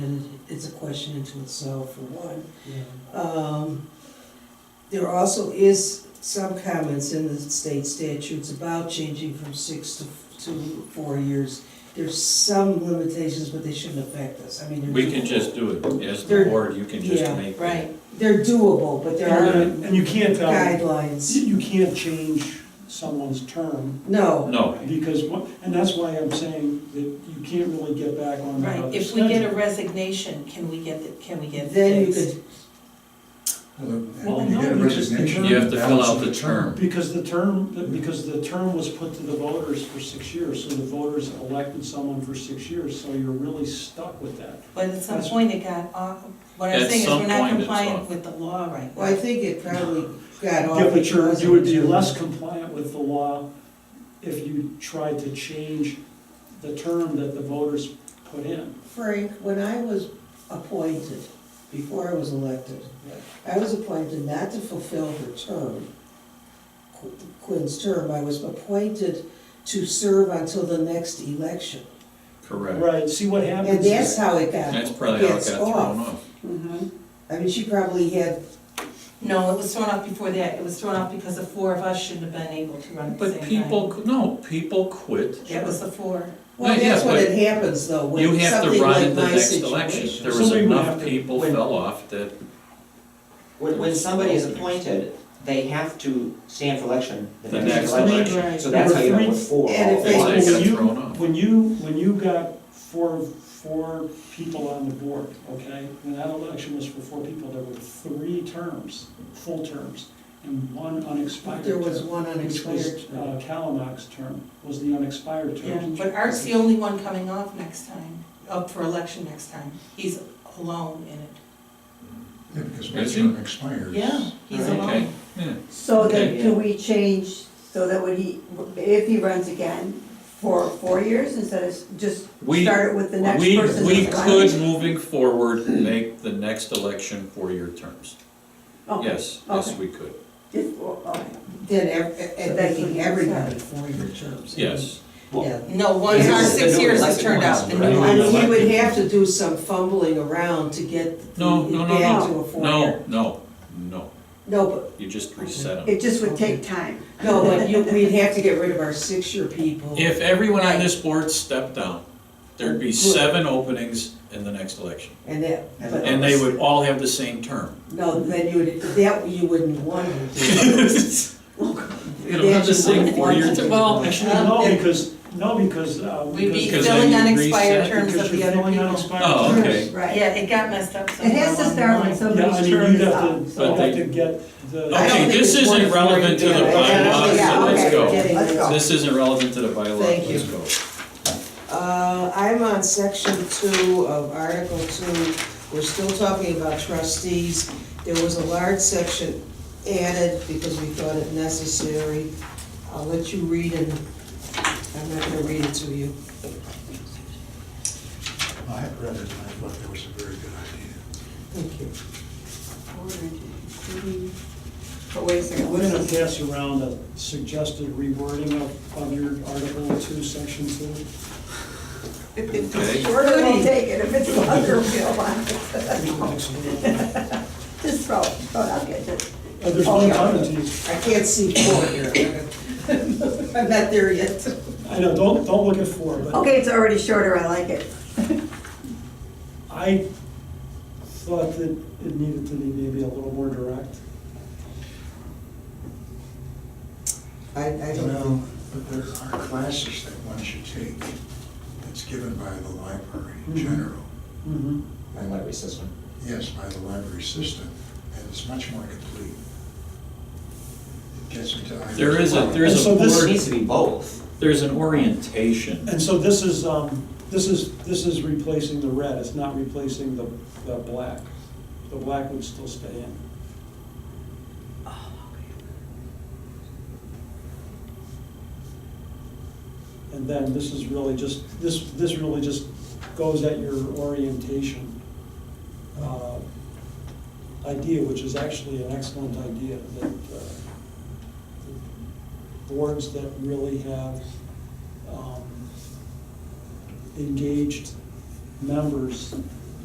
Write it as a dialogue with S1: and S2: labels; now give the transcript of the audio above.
S1: is a question into itself, for one. Um, There also is some comments in the state statutes about changing from six to, to four years. There's some limitations, but they shouldn't affect us, I mean, they're.
S2: We can just do it, as the
S1: They're-
S2: board, you can just
S1: yeah,
S2: make. that.
S3: Right,
S1: They're doable, but there are
S4: And you can't, uh,
S1: guidelines,
S4: you can't change someone's term,
S1: no,
S2: No,
S4: because, what- and that's why I'm saying that you can't really get back on that
S3: right.
S4: other
S3: If we get
S4: schedule.
S3: a resignation, can we get, the- can we get it
S1: then you
S3: fixed?
S1: could,
S4: Well,
S5: Well, you
S4: no,
S5: get a
S4: because the
S5: resignation.
S4: term-
S2: you have to fill out
S5: balance
S2: the
S5: of
S2: term.
S4: Because the term, because the term was put to the voters for six years, so the voters elected someone for six years, so you're really stuck with that.
S3: But at some
S4: That's-
S3: point it got off, what I'm
S2: At
S3: saying is
S2: some
S3: we're not
S2: point it's
S3: compliant
S2: off.
S3: with the law right
S1: well, I
S3: now.
S1: think it probably got
S3: Oh,
S1: off.
S4: Yeah, but you're,
S1: because
S4: you would be
S1: of-
S4: less compliant with the law if you tried to change the term that the voters put in.
S1: Frank, when I was appointed, before I was elected, I was appointed not to fulfill her term, Qu- Quinn's term, I was appointed to serve until the next election.
S2: Correct.
S4: Right, see what happens.
S1: And
S4: is-
S1: that's how it got,
S2: That's
S1: gets
S2: probably how it got thrown
S1: off.
S2: off.
S1: I mean, she probably had,
S3: No, it was thrown off before that, it was thrown off because the four of us shouldn't have been able to run at the same
S2: But
S3: time.
S2: people, no, people quit.
S3: That was the four.
S1: well,
S2: Yeah,
S1: that's
S2: yeah,
S1: what
S2: but
S1: it happens though,
S2: You
S1: when
S2: have to
S1: something
S2: run
S1: like
S2: in the
S1: my
S2: next election. There
S1: situation.
S2: was
S4: Somebody would
S2: enough
S4: have to
S2: people
S4: win.
S2: fell off that,
S6: When, when somebody is appointed, they have to stand for election the
S2: The
S6: next
S2: next
S6: election.
S3: election.
S6: So that's how you know what four.
S1: And if
S6: all
S1: they-
S2: they
S6: is.
S2: got
S4: you-
S2: thrown off.
S4: When you, when you got four, four people on the board, okay, when that election was for four people, there were three terms, full terms, and one unexpired
S1: There was
S4: term.
S1: one
S4: Which
S1: unexpired
S4: was,
S1: term.
S4: uh, Calamoc's term, was the unexpired
S3: Yeah,
S4: term.
S3: but Art's the only one coming off next time, up for election next time. He's alone in it.
S5: Yeah, because
S2: Is
S5: once
S2: he?
S5: term expires.
S3: Yeah, he's
S2: Okay.
S3: alone.
S2: yeah.
S7: So that,
S2: Okay.
S7: do we change, so that when he, if he runs again, for four years instead of just
S2: We-
S7: start it with the next
S2: We,
S7: person?
S2: we
S7: that's
S2: could,
S7: running?
S2: moving forward, make the next election four-year terms.
S7: Okay,
S2: Yes, yes,
S7: okay.
S2: we could,
S7: Just- well, all right.
S1: Then, ev- and
S7: that's what
S1: making
S7: you
S1: everybody
S7: said.
S1: four-year terms.
S2: yes.
S1: Yeah,
S3: No, once
S6: Yeah,
S3: our
S6: it's the
S3: six
S6: new
S3: years has
S6: elected
S3: turned
S6: ones,
S3: out, the
S6: right?
S3: new
S1: And
S3: one.
S1: he would have to do some fumbling around to get it
S2: No, no, no,
S1: back to a
S2: no,
S1: four-year.
S2: no, no, no.
S1: No, but,
S2: You just reset them.
S7: It just would take time.
S1: no, but you, we'd have to get rid of our six-year people.
S2: If everyone on this board stepped down, there'd be seven openings in the next election.
S1: And that, but.
S2: And they would all have the same term.
S1: No, then you would, that you wouldn't want to do.
S2: It'll have the same four-year term. Well,
S4: Actually, no, because, no, because, uh,
S3: We'd be
S2: Because
S4: because.
S3: filling
S2: then you
S3: unexpired
S2: reset-
S3: terms of
S4: because
S3: the
S4: you're
S3: other
S4: filling out
S3: people.
S4: expired
S2: Oh,
S4: terms.
S2: okay.
S7: Right.
S3: Yeah, it got messed up
S7: It
S3: somewhere.
S7: has to
S3: along the
S7: start when
S3: line.
S4: Yeah,
S7: somebody's
S4: I mean,
S7: term
S4: you'd
S7: is
S4: have
S7: up.
S4: to,
S2: But
S4: you'd
S7: so-
S4: have
S2: they-
S4: to get the.
S1: I don't
S2: Okay,
S1: think
S2: this
S1: it's
S2: isn't
S1: worth
S2: relevant to the
S1: worrying about it.
S2: bylaws,
S7: so let's
S1: Yeah, okay,
S7: go.
S1: getting
S7: Let's
S1: there.
S7: go.
S2: This isn't relevant to the bylaw,
S1: Thank
S2: let's
S1: you.
S2: go.
S1: Uh, I'm on section two of Article two, we're still talking about trustees. There was a large section added because we thought it necessary. I'll let you read it, I'm not gonna read it to you.
S5: I had read it, and I thought that was a very good idea.
S1: Thank you.
S7: But wait a second,
S4: We're gonna pass around a suggested rewording of, of your Article Two, Section Two.
S7: if it's
S2: Okay.
S7: shorter, we'll take it, if it's longer, we'll want it.
S4: Uh,
S7: Just oh, throw, it. throw it, I'll get it.
S4: There's no penalties.
S1: I can't see four here. I'm not there yet.
S4: I know, don't, don't look at four, but
S7: Okay, it's already shorter, I like it.
S4: I thought that it needed to be maybe a little more direct.
S1: I, I
S5: You
S1: don't know.
S5: know, but there are classes that one should take that's given by the library in
S4: Mhm.
S5: general.
S4: Mm-hmm.
S6: My library system.
S5: Yes, by the library system, and it's much more complete. It gets into.
S2: There is a, there
S4: And
S2: is a
S4: so this-
S6: It
S2: board,
S6: needs to be both.
S2: there's an orientation.
S4: And so this is, um, this is, this is replacing the red, it's not replacing the, the black. The black would still stay in. And then this is really just, this, this really just goes at your orientation, uh, idea, which is actually an excellent idea, that, uh, boards that really have, um, engaged members